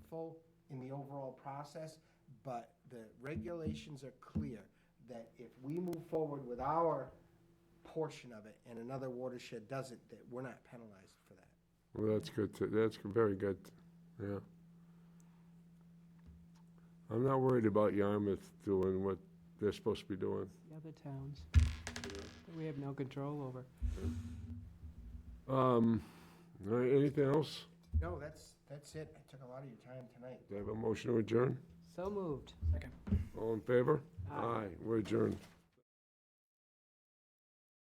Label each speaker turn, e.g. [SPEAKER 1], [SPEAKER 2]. [SPEAKER 1] helpful in the overall process, but the regulations are clear that if we move forward with our portion of it and another watershed doesn't, that we're not penalized for that.
[SPEAKER 2] Well, that's good, to- that's very good, yeah. I'm not worried about Yarmouth doing what they're supposed to be doing.
[SPEAKER 3] the other towns that we have no control over.
[SPEAKER 2] Um, all right, anything else?
[SPEAKER 1] No, that's, that's it. I took a lot of your time tonight.
[SPEAKER 2] Do I have a motion to adjourn?
[SPEAKER 3] So moved.
[SPEAKER 2] All in favor?
[SPEAKER 3] Aye.
[SPEAKER 2] We're adjourned.